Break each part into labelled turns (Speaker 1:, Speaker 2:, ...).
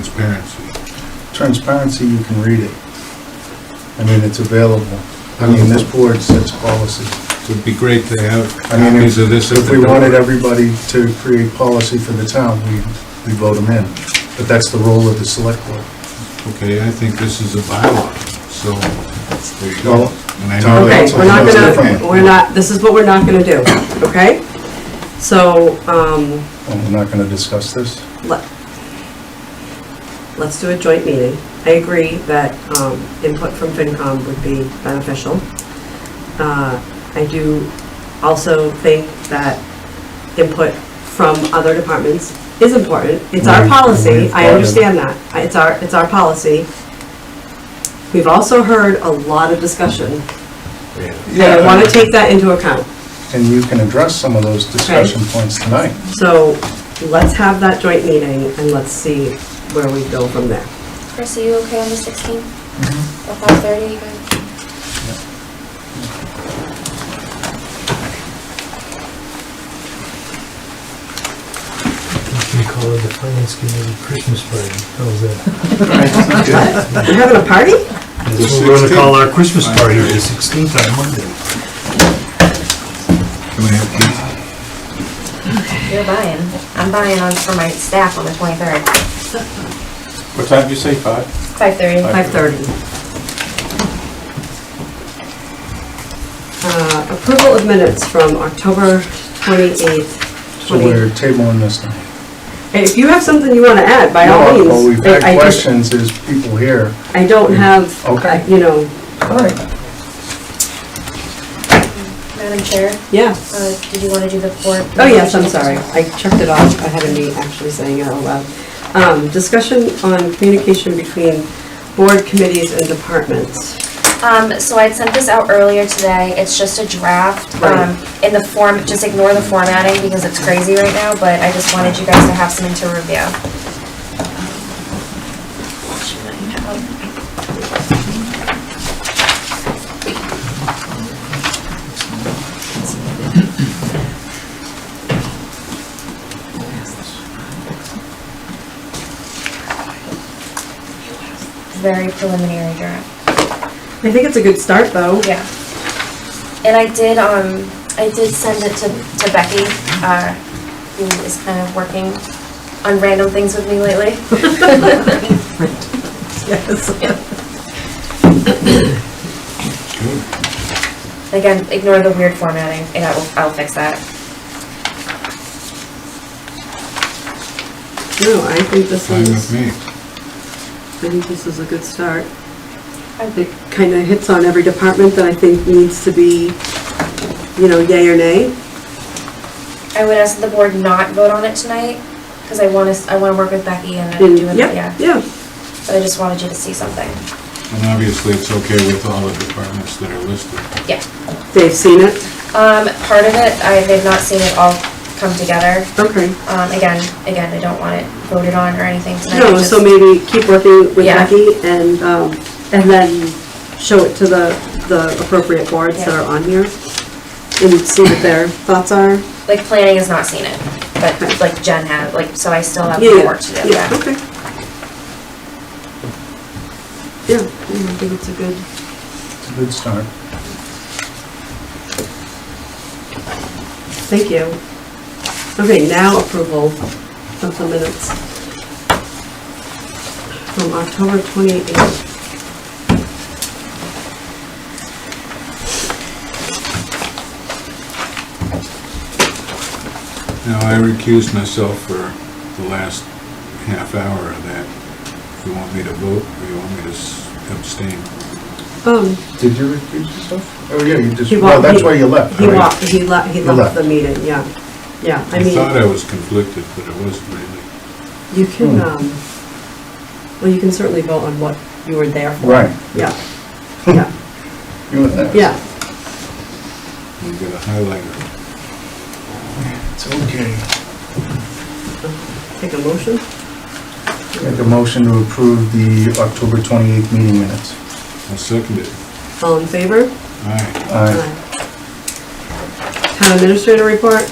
Speaker 1: transparency.
Speaker 2: Transparency, you can read it. I mean, it's available. I mean, this board sets policy.
Speaker 1: It would be great to have
Speaker 2: I mean,
Speaker 1: copies of this. at
Speaker 2: If we
Speaker 1: the door.
Speaker 2: wanted everybody to create policy for the town, we, we vote them in. But that's the role of the select board.
Speaker 1: Okay, I think this is a bylaw, so there you go.
Speaker 2: Well,
Speaker 1: And I
Speaker 2: Tom-
Speaker 1: know
Speaker 2: Okay,
Speaker 3: Okay,
Speaker 2: so
Speaker 3: we're not
Speaker 2: that's different.
Speaker 3: gonna, we're not, this is what we're not gonna do, okay? So, um,
Speaker 2: And we're not gonna discuss this.
Speaker 3: let, let's do a joint meeting. I agree that, um, input from FinCom would be beneficial. Uh, I do also think that input from other departments is important. It's our
Speaker 2: Right,
Speaker 3: policy,
Speaker 2: we've got
Speaker 3: I
Speaker 2: it.
Speaker 3: understand that. I- It's our, it's our policy. We've also heard a lot of discussion, and I wanna take that into account.
Speaker 2: And you can address some of those discussion points tonight.
Speaker 3: So let's have that joint meeting and let's see where we go from there.
Speaker 4: Chris, are you okay on the 16th?
Speaker 5: Mm-hmm.
Speaker 4: Or 5:30, you guys?
Speaker 6: We call it the finance committee Christmas party. How's that?
Speaker 3: We're having a party?
Speaker 6: That's what we're gonna call our Christmas party, the sixteenth on Monday.
Speaker 1: Can I have these?
Speaker 5: You're buying. I'm buying on for my staff on the twenty-third,
Speaker 7: What time did you say, five?
Speaker 5: five-thirty.
Speaker 3: Five thirty. Uh, approval of minutes from October twenty-eighth,
Speaker 2: So
Speaker 3: twenty.
Speaker 2: we're tabling this now.
Speaker 3: If you have something you wanna add, by all means.
Speaker 2: Well, we've
Speaker 3: I- I
Speaker 2: had
Speaker 3: just-
Speaker 2: questions, there's people here.
Speaker 3: I don't have,
Speaker 2: Okay.
Speaker 3: uh, you know,
Speaker 2: All right.
Speaker 5: Madam Chair,
Speaker 3: yeah.
Speaker 5: uh, did you wanna do the four?
Speaker 3: Oh, yes, I'm sorry. I checked it off. I had a me actually saying it out loud. Um, discussion on communication between board committees and departments.
Speaker 4: Um, so I sent this out earlier today, it's just a draft,
Speaker 3: Right.
Speaker 4: um, in the form, just ignore the formatting because it's crazy right now, but I just wanted you guys to have something to review. Very preliminary draft.
Speaker 3: I think it's a good start, though.
Speaker 4: Yeah. And I did, um, I did send it to, to Becky, uh, who is kind of working on random things with me lately.
Speaker 3: Yes.
Speaker 1: Good.
Speaker 4: Again, ignore the weird formatting, and I will, I'll fix that.
Speaker 3: No, I think this
Speaker 1: Fine with
Speaker 3: is, I
Speaker 1: me.
Speaker 3: think this is a good start. It kind of hits on every department that I think needs to be, you know, yay or nay.
Speaker 4: I would ask that the board not vote on it tonight, because I want to, I want to work with Becky and
Speaker 3: And-
Speaker 4: do it, yeah.
Speaker 3: Yep, yeah.
Speaker 4: But I just wanted you to see something.
Speaker 1: And obviously, it's okay with all the departments that are listed.
Speaker 4: Yeah.
Speaker 3: They've seen it.
Speaker 4: Um, part of it, I, they've not seen it all come together.
Speaker 3: Okay.
Speaker 4: Um, again, again, I don't want it voted on or anything tonight.
Speaker 3: No,
Speaker 4: just-
Speaker 3: so maybe keep working with
Speaker 4: Yeah.
Speaker 3: Becky and, um, and then show it to the, the appropriate boards that
Speaker 4: Yeah.
Speaker 3: are on here and see what their thoughts are.
Speaker 4: Like planning has not seen it, but like Jen had, like, so I still have
Speaker 3: Yeah,
Speaker 4: more work to do,
Speaker 3: Yeah,
Speaker 4: yeah.
Speaker 3: okay. Yeah, yeah, I think it's a good.
Speaker 2: It's a good start.
Speaker 3: Thank you. Okay, now approval of the minutes from October 28th.
Speaker 1: Now, I recused myself for the last half hour of that. You want me to vote, or you want me to s- abstain?
Speaker 3: Um,
Speaker 2: Did you recuse yourself? Oh, yeah, you just,
Speaker 3: He
Speaker 2: well,
Speaker 3: walked-
Speaker 2: that's
Speaker 3: he-
Speaker 2: why you left.
Speaker 3: he
Speaker 2: right?
Speaker 3: left, he left, he
Speaker 2: You
Speaker 3: left
Speaker 2: left.
Speaker 3: the meeting, yeah. Yeah, I
Speaker 1: I thought
Speaker 3: mean,
Speaker 1: I was conflicted, but it wasn't really.
Speaker 3: you can,
Speaker 2: Hmm.
Speaker 3: um, well, you can certainly vote on what you were there for.
Speaker 2: Right. Hmm.
Speaker 3: Yeah, yeah,
Speaker 2: You went there.
Speaker 3: yeah.
Speaker 1: You got a highlighter.
Speaker 2: It's okay.
Speaker 3: Take a motion?
Speaker 2: Make a motion to approve the October 28th meeting minutes.
Speaker 1: I'll second it.
Speaker 3: All in favor?
Speaker 1: Aye.
Speaker 2: Aye.
Speaker 3: Town administrator report?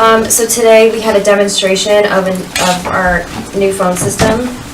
Speaker 4: Um, so today we had a demonstration of an, of our new phone system.